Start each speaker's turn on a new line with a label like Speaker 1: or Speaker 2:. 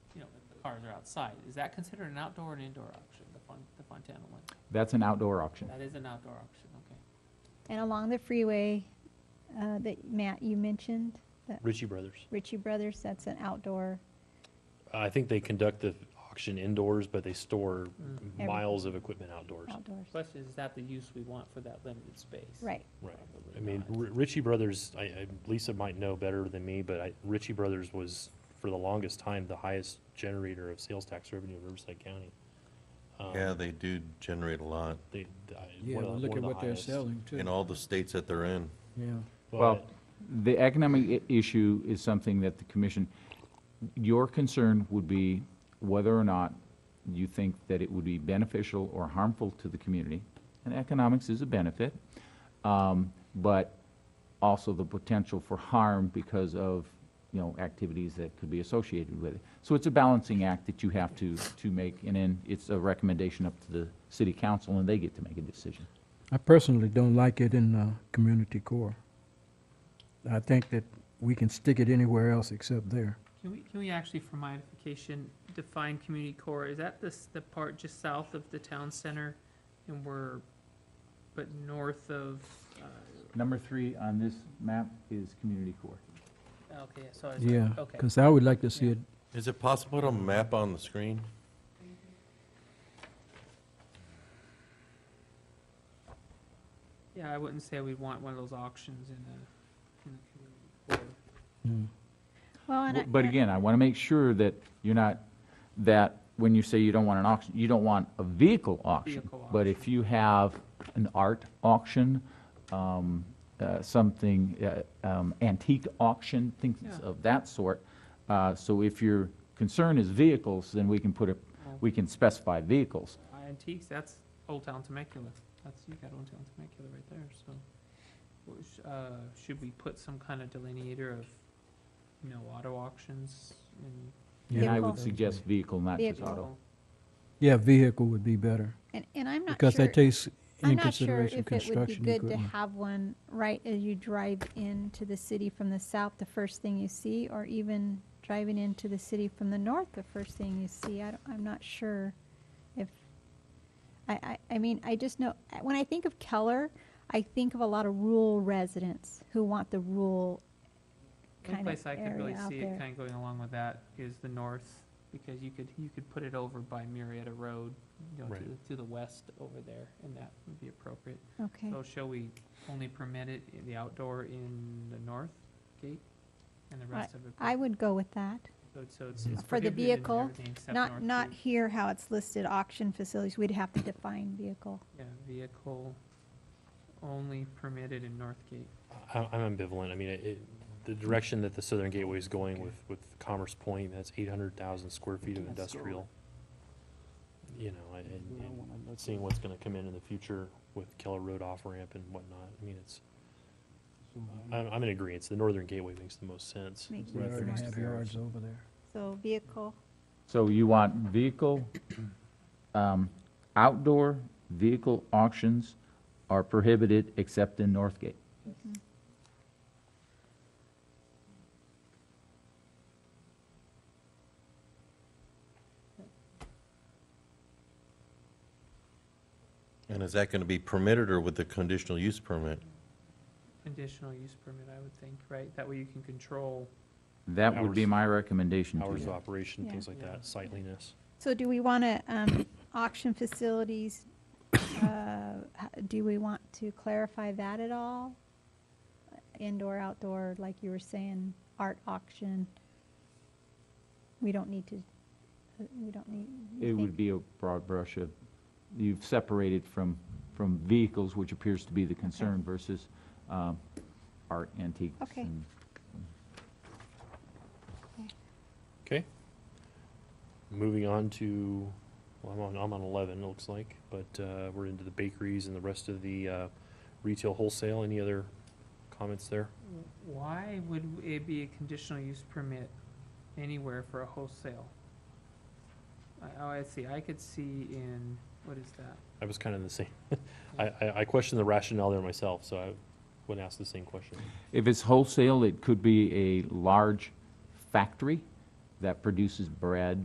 Speaker 1: cars are outside, is that considered an outdoor and indoor auction, the Fon, the Fontana one?
Speaker 2: That's an outdoor auction.
Speaker 1: That is an outdoor auction, okay.
Speaker 3: And along the freeway uh, that Matt, you mentioned, the
Speaker 4: Ritchie Brothers.
Speaker 3: Ritchie Brothers, that's an outdoor,
Speaker 4: I think they conduct the auction indoors, but they store
Speaker 1: Mm.
Speaker 4: miles of equipment outdoors.
Speaker 3: outdoors.
Speaker 1: Question, is that the use we want for that limited space?
Speaker 3: Right.
Speaker 4: Right.
Speaker 1: Probably
Speaker 4: I mean,
Speaker 1: not.
Speaker 4: R- Ritchie Brothers, I, I, Lisa might know better than me, but I, Ritchie Brothers was, for the longest time, the highest generator of sales tax revenue in Riverside County. Um,
Speaker 5: Yeah, they do generate a lot
Speaker 4: They, I-
Speaker 6: Yeah,
Speaker 4: one of the-
Speaker 6: look
Speaker 4: one
Speaker 6: at
Speaker 4: of the
Speaker 6: what they're
Speaker 4: highest.
Speaker 6: selling too.
Speaker 5: in all the states that they're in.
Speaker 6: Yeah.
Speaker 2: Well,
Speaker 4: But-
Speaker 2: the economic i- issue is something that the commission, your concern would be whether or not you think that it would be beneficial or harmful to the community. And economics is a benefit, um, but also the potential for harm because of, you know, activities that could be associated with it. So it's a balancing act that you have to, to make, and then it's a recommendation up to the city council, and they get to make a decision.
Speaker 6: I personally don't like it in uh, community core. I think that we can stick it anywhere else except there.
Speaker 1: Can we, can we actually, for modification, define community core? Is that this, the part just south of the town center and we're, but north of, uh,
Speaker 2: Number three on this map is community core.
Speaker 1: okay, so I was,
Speaker 6: Yeah,
Speaker 1: okay.
Speaker 6: because I would like to see
Speaker 1: Yeah.
Speaker 6: it.
Speaker 5: Is it possible to map on the screen?
Speaker 1: Yeah, I wouldn't say we'd want one of those auctions in a, in a community core.
Speaker 6: mm.
Speaker 3: Well, and I-
Speaker 2: But again, I want to make sure that you're not, that when you say you don't want an auction, you don't want a vehicle auction.
Speaker 1: Vehicle
Speaker 2: But
Speaker 1: auction.
Speaker 2: if you have an art auction, um, uh, something, uh, um, antique auction, things
Speaker 1: Yeah.
Speaker 2: of that sort. uh, So if your concern is vehicles, then we can put a, we can specify vehicles.
Speaker 1: Antiques, that's Old Town Temecula. That's, you got Old Town Temecula right there, so. what sh- uh, Should we put some kind of delineator of, you know, auto auctions and?
Speaker 2: And I would
Speaker 3: Vehicle.
Speaker 2: suggest vehicle, not just
Speaker 3: Vehicle.
Speaker 2: auto.
Speaker 6: Yeah, vehicle would be better,
Speaker 3: And, and I'm not
Speaker 6: because
Speaker 3: sure,
Speaker 6: that takes
Speaker 3: I'm
Speaker 6: in
Speaker 3: not sure
Speaker 6: consideration
Speaker 3: if it would be
Speaker 6: construction
Speaker 3: good to
Speaker 6: equipment.
Speaker 3: have one right as you drive into the city from the south, the first thing you see, or even driving into the city from the north, the first thing you see. I don't, I'm not sure if, I, I, I mean, I just know, when I think of Keller, I think of a lot of rural residents who want the rural
Speaker 1: One
Speaker 3: kind of
Speaker 1: place I could really
Speaker 3: area out
Speaker 1: see it
Speaker 3: there.
Speaker 1: kind of going along with that is the north, because you could, you could put it over by Marietta Road, you know, to,
Speaker 4: Right.
Speaker 1: the- to the west over there, and that would be appropriate.
Speaker 3: Okay,
Speaker 1: So shall we only permit it, in the outdoor in the north gate, and the rest of it?
Speaker 3: I would go with that.
Speaker 1: So it's- so it's- it's
Speaker 3: For the
Speaker 1: prohibited in
Speaker 3: vehicle,
Speaker 1: everything except
Speaker 3: Not,
Speaker 1: north
Speaker 3: not
Speaker 1: gate.
Speaker 3: here how it's listed, auction facilities, we'd have to define vehicle.
Speaker 1: Yeah, vehicle only permitted in North Gate.
Speaker 4: I, I'm ambivalent. I mean, it, it- the direction that the Southern Gateway is going with, with Commerce Point, that's eight hundred thousand square feet of
Speaker 1: That's still-
Speaker 4: industrial. You know, and, and and seeing what's gonna come in in the future with Keller Road off-ramp and whatnot. I mean, it's, I'm, I'm in agreement. The Northern Gateway makes the most sense.
Speaker 3: Makes
Speaker 6: We
Speaker 3: more
Speaker 6: already
Speaker 3: sense.
Speaker 6: have yards over there.
Speaker 3: So vehicle,
Speaker 2: So you want vehicle, um, outdoor vehicle auctions are prohibited except in Northgate.
Speaker 5: And is that going to be permitted or with the conditional use permit?
Speaker 1: Conditional use permit, I would think, right? That way you can control.
Speaker 2: That would be
Speaker 4: Hours.
Speaker 2: my recommendation to
Speaker 4: Hours of
Speaker 2: you.
Speaker 4: operation,
Speaker 3: Yeah.
Speaker 4: things like
Speaker 1: Yeah.
Speaker 4: that, sightliness.
Speaker 3: so do we want to, um, auction facilities, uh, h- do we want to clarify that at all? Indoor, outdoor, like you were saying, art auction? We don't need to, uh, we don't need. you
Speaker 2: It would
Speaker 3: think-
Speaker 2: be a broad brush of, you've separated from, from vehicles, which appears to be the concern, versus um, art antiques.
Speaker 3: Okay.
Speaker 2: and-
Speaker 4: Okay. Moving on to, well, I'm on, I'm on eleven, it looks like, but, uh, we're into the bakeries and the rest of the, uh, retail wholesale. Any other comments there?
Speaker 1: Why would it be a conditional use permit anywhere for a wholesale? I, oh, I see, I could see in, what is that?
Speaker 4: I was kind of the same. I, I, I questioned the rationale there myself, so I would ask the same question.
Speaker 2: If it's wholesale, it could be a large factory that produces bread